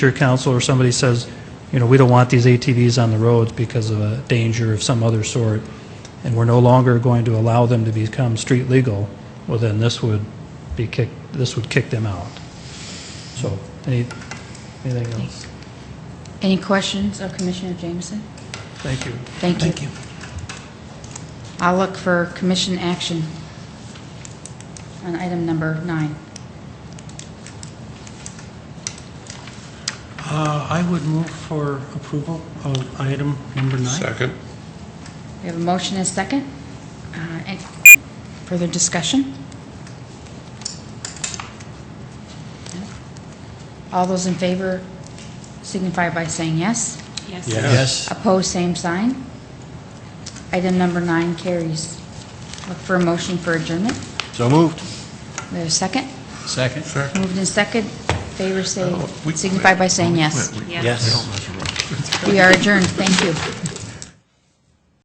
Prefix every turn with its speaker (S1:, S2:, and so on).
S1: your council or somebody says, you know, we don't want these ATVs on the roads because of a danger of some other sort, and we're no longer going to allow them to become street legal, well, then this would be kicked, this would kick them out. So, any, anything else?
S2: Any questions of Commissioner Jameson?
S1: Thank you.
S2: Thank you. I'll look for commission action on item number nine.
S3: Uh, I would move for approval of item number nine.
S4: Second.
S2: We have a motion and a second. Uh, and Further discussion? All those in favor signify by saying yes.
S3: Yes.
S2: Opposed, same sign. Item number nine carries. Look for a motion for adjournment.
S5: So moved.
S2: We have a second.
S3: Second.
S2: Moved in second. Favor say,
S4: Oh, We-
S2: signify by saying yes.
S4: We- we-
S5: Yes.
S2: We are adjourned. Thank you.